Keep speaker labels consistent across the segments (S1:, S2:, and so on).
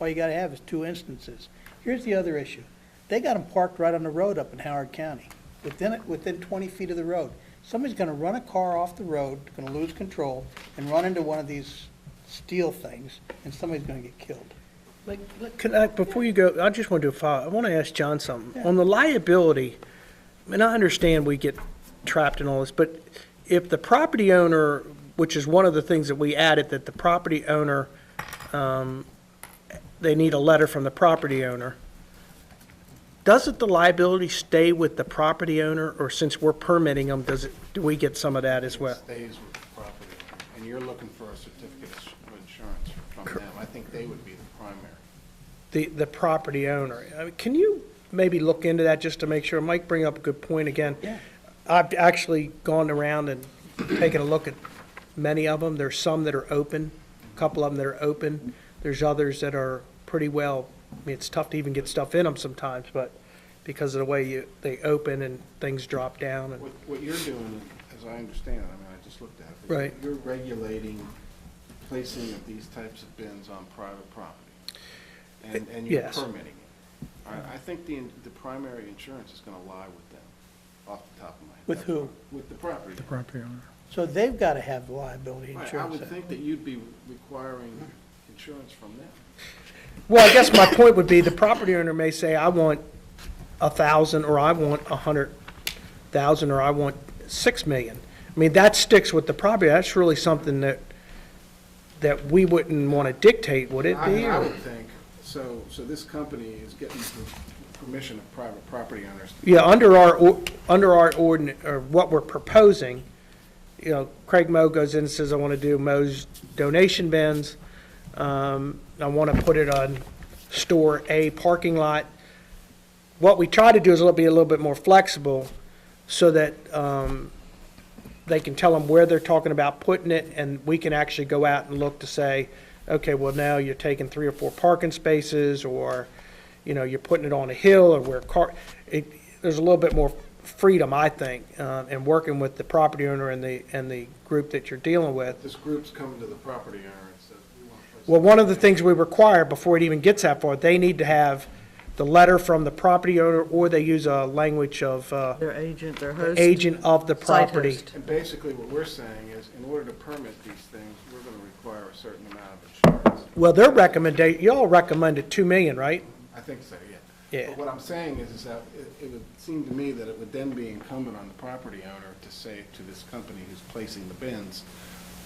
S1: All you gotta have is two instances. Here's the other issue. They got them parked right on the road up in Howard County, within, within twenty feet of the road. Somebody's gonna run a car off the road, gonna lose control, and run into one of these steel things, and somebody's gonna get killed.
S2: Like, look, Can I, before you go, I just want to do a follow, I want to ask John something.
S1: Yeah.
S2: On the liability, and I understand we get trapped in all this, but if the property owner, which is one of the things that we added, that the property owner, um, they need a letter from the property owner, doesn't the liability stay with the property owner, or since we're permitting them, does it, do we get some of that as well?
S3: Stays with the property, and you're looking for a certificate of insurance from them. I think they would be the primary.
S2: the, the property owner. I mean, Can you maybe look into that just to make sure? Mike bring up a good point again.
S1: Yeah.
S2: I've actually gone around and taken a look at many of them. There's some that are open, a couple of them that are open. There's others that are pretty well, I mean, it's tough to even get stuff in them sometimes, but because of the way you, they open and things drop down and,
S3: What, what you're doing, as I understand it, I mean, I just looked at it.
S2: Right.
S3: You're regulating placing of these types of bins on private property, and, and you're
S2: yes.
S3: permitting it. I, I think the, the primary insurance is gonna lie with them, off the top of my head.
S1: With who?
S3: With the property.
S4: property owner.
S1: So they've gotta have liability
S3: Right, I
S1: insurance.
S3: would think that you'd be requiring insurance from them.
S2: well, I guess my point would be the property owner may say, I want a thousand, or I want a hundred thousand, or I want six million. I mean, that sticks with the property, that's really something that, that we wouldn't want to dictate, would it be?
S3: I- I
S2: or-
S3: would think, so, so this company is getting per- permission of private property owners.
S2: Yeah, under our, or- under our ordinance, or what we're proposing, you know, Craig Moe goes in and says, I want to do Moe's donation bins. Um, I want to put it on store A parking lot. What we try to do is a little- be a little bit more flexible so that um, they can tell them where they're talking about putting it, and we can actually go out and look to say, okay, well, now you're taking three or four parking spaces, or, you know, you're putting it on a hill, or where car, it, there's a little bit more freedom, I think, uh, in working with the property owner and the, and the group that you're dealing with.
S3: This group's coming to the property owner and says, we want to place.
S2: Well, one of the things we require before it even gets that far, they need to have the letter from the property owner, or they use a language of, uh,
S4: Their agent, their
S2: the
S4: host.
S2: agent of the
S4: site
S2: property.
S4: host.
S3: And basically, what we're saying is, in order to permit these things, we're going to require a certain amount of insurance.
S2: Well, their recommendation, y'all recommended two million, right?
S3: I think so, yeah.
S2: Yeah.
S3: But what I'm saying is, is that it- it would seem to me that it would then be incumbent on the property owner to say to this company who's placing the bins,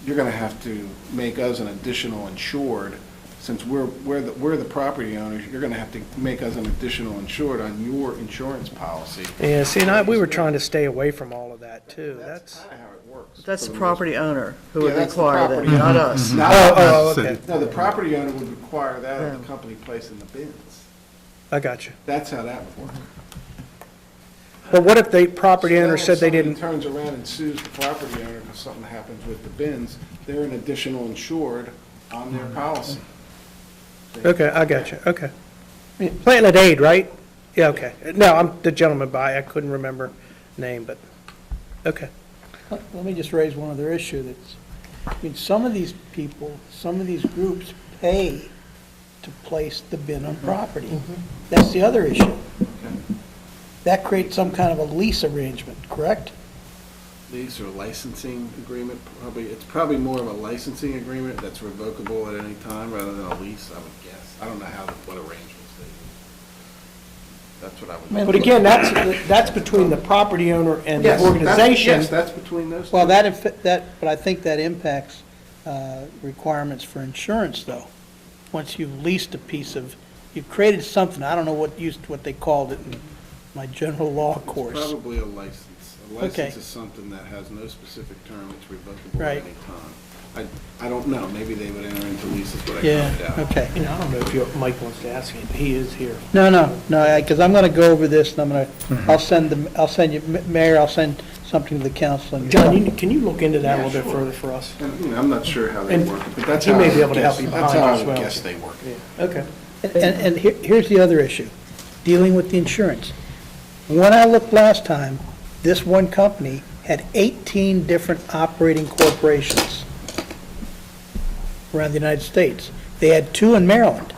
S3: you're going to have to make us an additional insured, since we're, we're the, we're the property owners, you're going to have to make us an additional insured on your insurance policy.
S2: Yeah, see, and I, we were trying to stay away from all of that, too, that's,
S3: kinda how it works.
S4: That's
S3: for
S4: the
S3: the most
S4: property owner who
S3: Yeah,
S4: would
S3: that's the
S4: require that,
S3: property
S4: not
S3: owner. Mm-hmm.
S4: us.
S3: Not-
S2: Oh, oh, okay,
S3: No, the property owner would require that of the company placing the bins.
S2: I got you.
S3: That's how that would work.
S2: But what if the property
S3: So
S2: owner
S3: then
S2: said they
S3: if
S2: didn't,
S3: somebody turns around and sues the property owner because something happens with the bins, they're an additional insured on their policy.
S2: okay, I got you, okay. Planet Aid, right? Yeah, okay, no, I'm the gentleman by, I couldn't remember name, but, okay.
S1: Let let me just raise one other issue that's, I mean, some of these people, some of these groups pay to place the bin
S3: Mm-hmm.
S1: on property. That's the other issue. That creates some kind of a lease arrangement, correct?
S3: These are licensing agreement, probably, it's probably more of a licensing agreement that's revocable at any time rather than a lease, I would guess. I don't know how, what arrangements they use. That's what I would.
S2: But again, that's, that's between the property owner and the
S3: Yes, that's-
S2: organization.
S3: Yes, that's between those two.
S1: Well, that, inf- that, but I think that impacts uh, requirements for insurance, though. Once you've leased a piece of, you've created something, I don't know what used, what they called it in my general law
S3: It's
S1: course.
S3: Probably a license. A
S1: Okay.
S3: license is something that has no specific term, it's revocable at
S1: Right.
S3: any time. I, I don't know, maybe they would enter into leases, but I can't
S1: Yeah,
S3: doubt.
S1: okay.
S2: You know, I don't know if you- Mike wants to ask him, but he is here.
S1: No, no, no, because I'm going to go over this, and I'm going to, I'll send the, I'll send you, M- Mayor, I'll send something to the council. and-
S2: John, you- can you look into that a
S3: Yeah,
S2: little bit
S3: sure.
S2: further for us?
S3: And, you know, I'm not sure how they
S2: And
S3: work it, but that's
S2: he
S3: how.
S2: may
S3: I
S2: be able to
S3: guess-
S2: help you
S3: that's
S2: behind
S3: how I
S2: as
S3: would
S2: well.
S3: Guess they work it.
S2: Okay.
S1: And, and here- here's the other issue, dealing with the insurance. When I looked last time, this one company had 18 different operating corporations around the United States. They had two in Maryland.